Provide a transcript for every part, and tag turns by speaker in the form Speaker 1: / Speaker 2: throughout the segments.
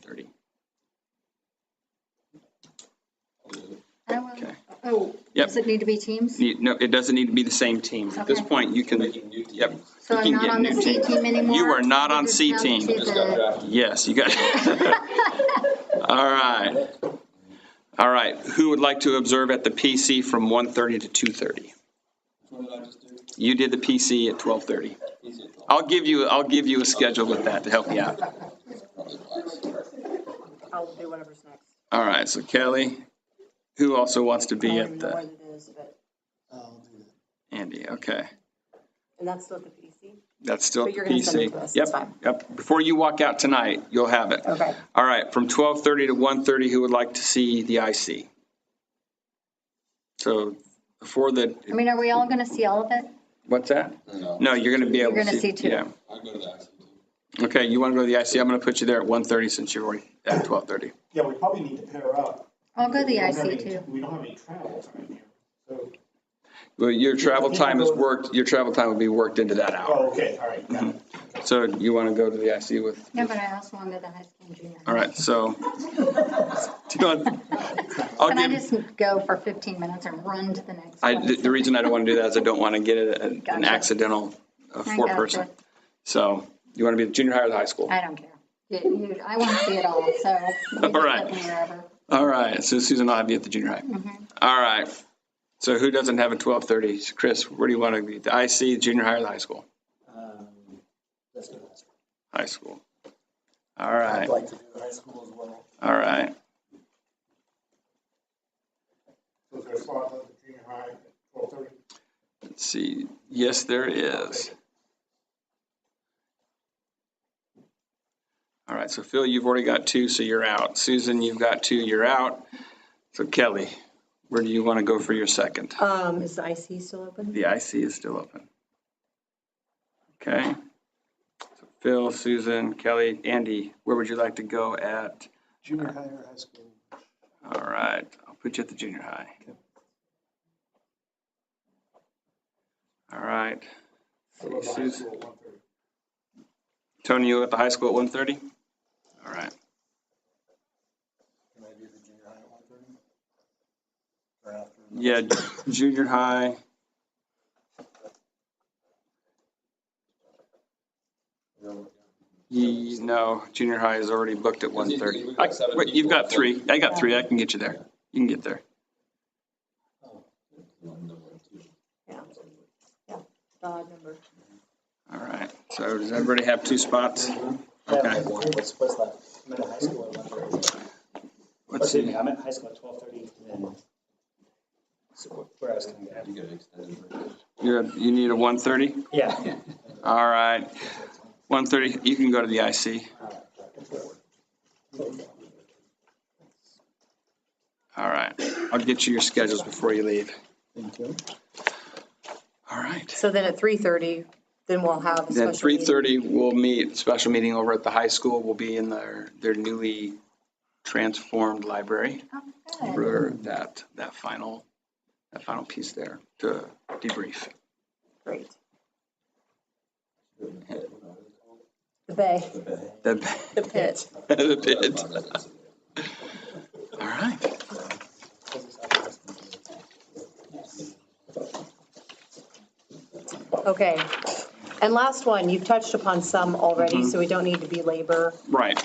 Speaker 1: thirty.
Speaker 2: I will,
Speaker 1: Okay.
Speaker 2: oh,
Speaker 1: Yep.
Speaker 2: does it need to be teams?
Speaker 1: Need- No, it doesn't need to be the same team. At this
Speaker 2: Okay.
Speaker 1: point, you can, yep,
Speaker 2: So
Speaker 1: we
Speaker 2: I'm
Speaker 1: can
Speaker 2: not
Speaker 1: get
Speaker 2: on the
Speaker 1: new
Speaker 2: C
Speaker 1: teams.
Speaker 2: team anymore?
Speaker 1: You are not
Speaker 2: We're
Speaker 1: on
Speaker 2: just
Speaker 1: C
Speaker 2: down
Speaker 1: team.
Speaker 2: to
Speaker 3: Just got
Speaker 2: the-
Speaker 3: drafted.
Speaker 1: yes, you got All right. All right, who would like to observe at the PC from 1:30 to 2:30?
Speaker 3: What did I just do?
Speaker 1: You did the PC at 12:30.
Speaker 3: Easy.
Speaker 1: I'll give you, I'll give you a schedule with that to help you out.
Speaker 4: I'll do whatever's next.
Speaker 1: All right, so Kelly, who also wants to
Speaker 4: I don't
Speaker 1: be
Speaker 4: even
Speaker 1: at
Speaker 4: know
Speaker 1: the,
Speaker 4: what it is, but,
Speaker 3: I'll do that.
Speaker 1: Andy, okay.
Speaker 4: and that's still the PC?
Speaker 1: That's still
Speaker 4: But
Speaker 1: at the
Speaker 4: you're gonna send it to
Speaker 1: PC.
Speaker 4: us, it's
Speaker 1: Yep,
Speaker 4: fine.
Speaker 1: yep. Before you walk out tonight, you'll have it.
Speaker 4: Okay.
Speaker 1: All right, from 12:30 to 1:30, who would like to see the IC? So before the,
Speaker 2: I mean, are we all going to see all of it?
Speaker 1: what's that?
Speaker 3: No,
Speaker 1: No, you're going to be able to
Speaker 2: gonna see two.
Speaker 1: yeah.
Speaker 3: I go to the IC too.
Speaker 1: Okay, you want to go to the IC? I'm going to put you there at 1:30 since you're already at 12:30.
Speaker 5: Yeah, we probably need to pair up.
Speaker 2: I'll go to the
Speaker 5: We don't have
Speaker 2: IC
Speaker 5: any-
Speaker 2: too.
Speaker 5: We don't have any travel time here. So,
Speaker 1: Well, your travel
Speaker 5: You can
Speaker 1: time is
Speaker 5: go-
Speaker 1: worked, your travel time will be worked into that hour.
Speaker 5: oh, okay, all right, got it.
Speaker 2: Oh.
Speaker 1: So you want to go to the IC with,
Speaker 2: No, but I also want to go to the high school and junior.
Speaker 1: all right, so. Do you want- I'll
Speaker 2: Can I
Speaker 1: give,
Speaker 2: just go for 15 minutes and run to the next
Speaker 1: I,
Speaker 2: one?
Speaker 1: the the reason I don't want to do that is I don't want to get it an- an
Speaker 2: Gotcha.
Speaker 1: accidental uh,
Speaker 2: I
Speaker 1: four
Speaker 2: gotcha.
Speaker 1: person. So you want to be the junior high or the high school?
Speaker 2: I don't care. You- you- I want to see it all, so. you just
Speaker 1: right.
Speaker 2: put me wherever.
Speaker 1: All right, so Susan, I'll have you at the junior high. All right, so who doesn't have a 12:30? Chris, where do you want to be? The IC, junior high or the high school?
Speaker 3: Um, Let's go to the high
Speaker 1: High
Speaker 3: school.
Speaker 1: school. All right,
Speaker 3: I'd like to do the high school as well.
Speaker 1: all right.
Speaker 5: So is there a slot at the junior high at twelve thirty?
Speaker 1: Let's see, yes, there is. All right, so Phil, you've already got two, so you're out. Susan, you've got two, you're out. So Kelly, where do you want to go for your second?
Speaker 4: Um, is the IC still open?
Speaker 1: The IC is still open. Okay. So Phil, Susan, Kelly, Andy, where would you like to go at?
Speaker 3: Junior high or high school?
Speaker 1: All right, I'll put you at the junior high. All right,
Speaker 5: So we'll go high
Speaker 1: Susan.
Speaker 5: school at one thirty.
Speaker 1: Tony, you at the high school at 1:30? All right,
Speaker 3: Can I do the junior high at one thirty? Or after?
Speaker 1: yeah, junior high, ye- no, junior high is already booked at 1:30. I- Wait, you've got three, I got three, I can get you there, you can get there.
Speaker 4: Yeah. Yeah, odd number.
Speaker 1: All right, so does everybody have two spots? Okay,
Speaker 6: What's, what's that? I'm at a high school at one thirty.
Speaker 1: let's see.
Speaker 6: I'm at high school at twelve thirty and then. So what- where I was gonna go.
Speaker 1: You're, you need a 1:30?
Speaker 6: Yeah.
Speaker 1: All right, 1:30, you can go to the IC. All right, I'll get you your schedules before you leave.
Speaker 6: Thank you.
Speaker 1: All right.
Speaker 4: So then at 3:30, then we'll have a
Speaker 1: Then
Speaker 4: special meeting.
Speaker 1: 3:30, we'll meet, special meeting over at the high school. We'll be in their, their newly transformed library
Speaker 2: Oh, good.
Speaker 1: for that, that final, that final piece there to debrief.
Speaker 4: Great. The bay,
Speaker 1: The
Speaker 4: the pit.
Speaker 1: the bid. All right.
Speaker 4: Okay. And last one, you've touched upon some
Speaker 1: Mm-hmm.
Speaker 4: already, so we don't need to belabor.
Speaker 1: Right.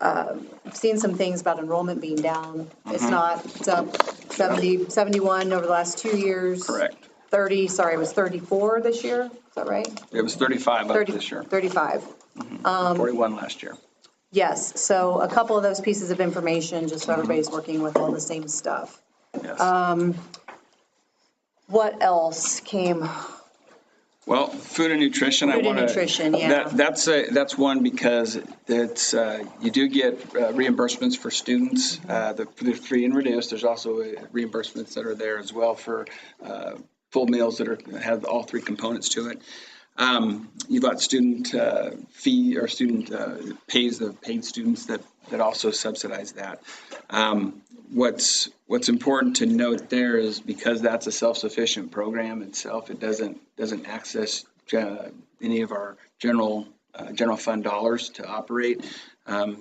Speaker 4: I've seen some things about enrollment being down. It's
Speaker 1: Mm-hmm.
Speaker 4: not it's up 70, 71 over the last two years.
Speaker 1: Correct.
Speaker 4: 30, sorry, it was 34 this year, is that right?
Speaker 1: It was 35 up
Speaker 4: 30
Speaker 1: this year,
Speaker 4: 35. Um,
Speaker 1: 41 last year.
Speaker 4: Yes, so a couple of those pieces of information, just so everybody's working with all the same stuff. uh,
Speaker 1: Yes.
Speaker 4: What else came?
Speaker 1: Well, food and nutrition, I
Speaker 4: Food and
Speaker 1: want to.
Speaker 4: nutrition, yeah.
Speaker 1: That's, a- that's one because it's, uh, you do get uh, reimbursements for students, uh, the the free and reduced. There's also uh, reimbursements that are there as well for uh, full meals that are, have all three components to it. Um, You've got student uh, fee or student uh, pays the paid students that, that also subsidize that. Um, What's, what's important to note there is because that's a self-sufficient program itself, it doesn't, doesn't access uh, any of our general
Speaker 7: uh, general fund dollars to operate. Um,